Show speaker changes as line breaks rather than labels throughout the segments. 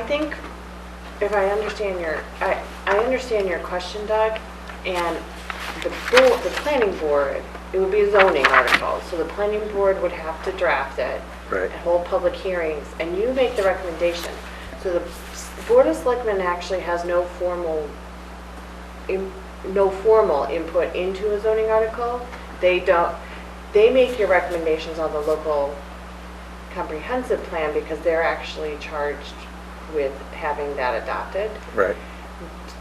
think, if I understand your, I, I understand your question, Doug, and the board, the planning board, it would be a zoning article, so the planning board would have to draft it.
Right.
and Hold public hearings, and you make the recommendation. So the s- Board of Selectmen actually has no formal, im- no formal input into a zoning article. They don't, they make your recommendations on the local comprehensive plan because they're actually charged with having that adopted.
Right.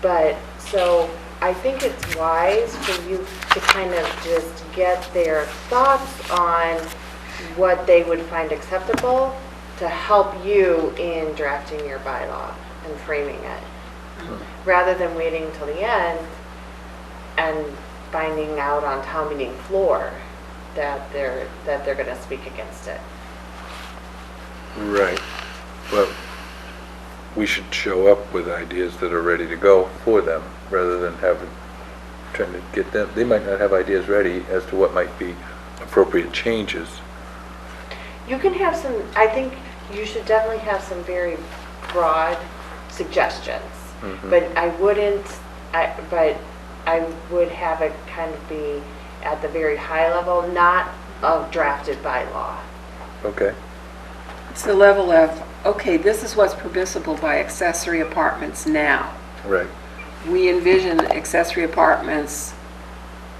But, so I think it's wise for you to kind of just get their thoughts on what they would find acceptable to help you in drafting your bylaw and framing it, rather than waiting till the end and finding out on town meeting floor that they're, that they're going to speak against it.
Right. But we should show up with ideas that are ready to go for them, rather than having, trying to get them, they might not have ideas ready as to what might be appropriate changes.
You can have some, I think you should definitely have some very broad suggestions.
Mhm.
But I wouldn't, I, but I would have it kind of be at the very high level, not of drafted by law.
Okay?
It's the level of, okay, this is what's permissible by accessory apartments now.
Right.
We envision accessory apartments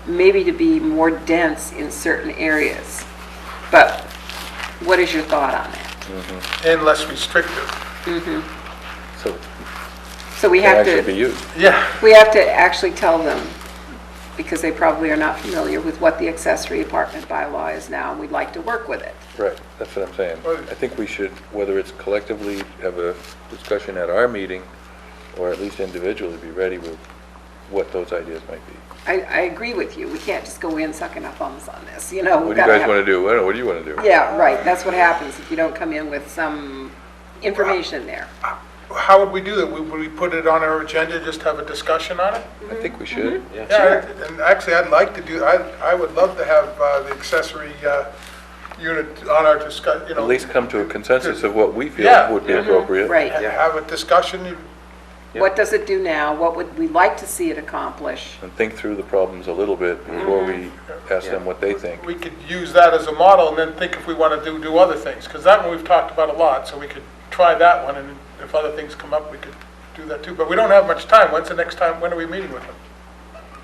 maybe to be more dense in certain areas. But what is your thought on it?
and less restrictive.
So
So we
it
have
actually be
to,
you.
Yeah,
we have to actually tell them, because they probably are not familiar with what the accessory apartment bylaw is now, and we'd like to work with it.
Right, that's what I'm saying.
Right.
I think we should, whether it's collectively have a discussion at our meeting, or at least individually, be ready with what those ideas might be.
I, I agree with you, we can't just go in sucking our thumbs on this, you know?
What do you guys want to do? What do you want to do?
Yeah, right, that's what happens if you don't come in with some information there.
how would we do that? Would we put it on our agenda, just have a discussion on it?
I think we should.
Yeah, I- and actually, I'd like to do, I, I would love to have uh, the accessory uh, unit on our discuss, you know.
At least come to a consensus of what we feel
Yeah.
would be appropriate.
Right.
ha- Have a discussion, you-
What does it do now? What would we like to see it accomplish?
And think through the problems a little bit before we ask them what they think.
we could use that as a model and then think if we want to do, do other things. Because that one we've talked about a lot, so we could try that one, and if other things come up, we could do that too. But we don't have much time. When's the next time, when are we meeting with them?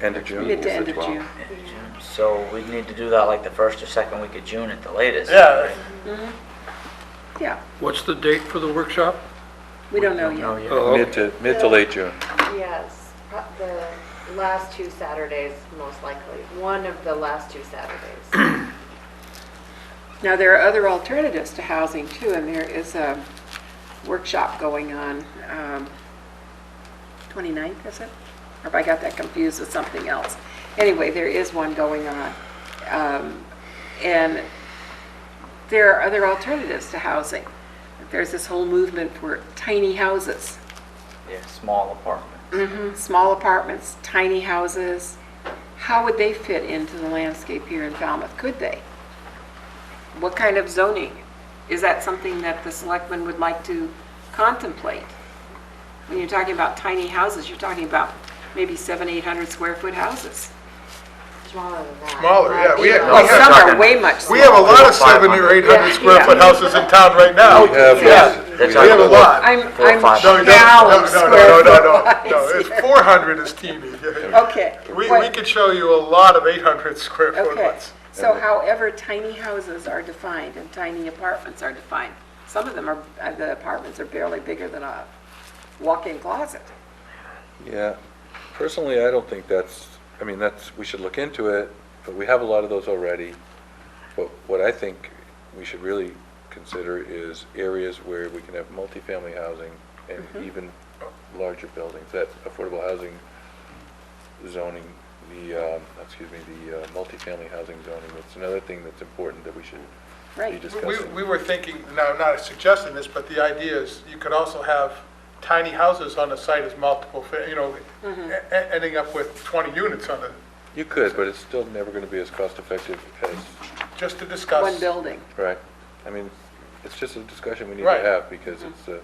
End of June?
Mid to end of June.
So we need to do that like the first or second week of June at the latest.
Yeah,
Yeah,
What's the date for the workshop?
we don't know
No,
yet.
yeah.
Oh,
Mid to, mid to late June.
Yes, pro- the last two Saturdays, most likely, one of the last two Saturdays.
Now, there are other alternatives to housing too, and there is a workshop going on, um, 29th, is it? Or if I got that confused with something else. Anyway, there is one going on. Um, And there are other alternatives to housing. There's this whole movement for tiny houses.
Yeah, small apartment.
Mm-hmm. small apartments, tiny houses, how would they fit into the landscape here in Falmouth? Could they? What kind of zoning? Is that something that the selectmen would like to contemplate? When you're talking about tiny houses, you're talking about maybe seven, 800 square foot houses.
Smaller than that.
Smaller, yeah, we-
Might be
Oh,
Well,
like-
they're
Some are
talking-
way much
we have a
smaller.
lot of seven or eight hundred square foot houses in town right now.
We have-
Oh, Yeah.
we
That's
We have a lot.
I'm,
Four or
I'm
five.
No, no, no,
shallow
no, no,
square
no,
foot
no, no,
wise.
it's four hundred is teeny.
Okay.
We, we
what-
could show you a lot of eight hundred square foot
Okay,
ones.
so however tiny houses are defined and tiny apartments are defined, some of them are, uh, the apartments are barely bigger than a walk-in closet.
Yeah. Personally, I don't think that's, I mean, that's, we should look into it, but we have a lot of those already. But what I think we should really consider is areas where we can have multifamily housing and even larger buildings, that affordable housing zoning, the, um, excuse me, the uh, multifamily housing zoning, that's another thing that's important that we should be
Right.
discussing.
We, we were thinking, now, I'm not suggesting this, but the idea is you could also have tiny houses on the site as multiple, fa- you know,
Mm-hmm.
e- e- ending up with twenty units on it,
You could, but it's still never going to be as cost-effective as,
just to discuss.
One building.
right? I mean, it's just a discussion we need to
Right.
have, because it's a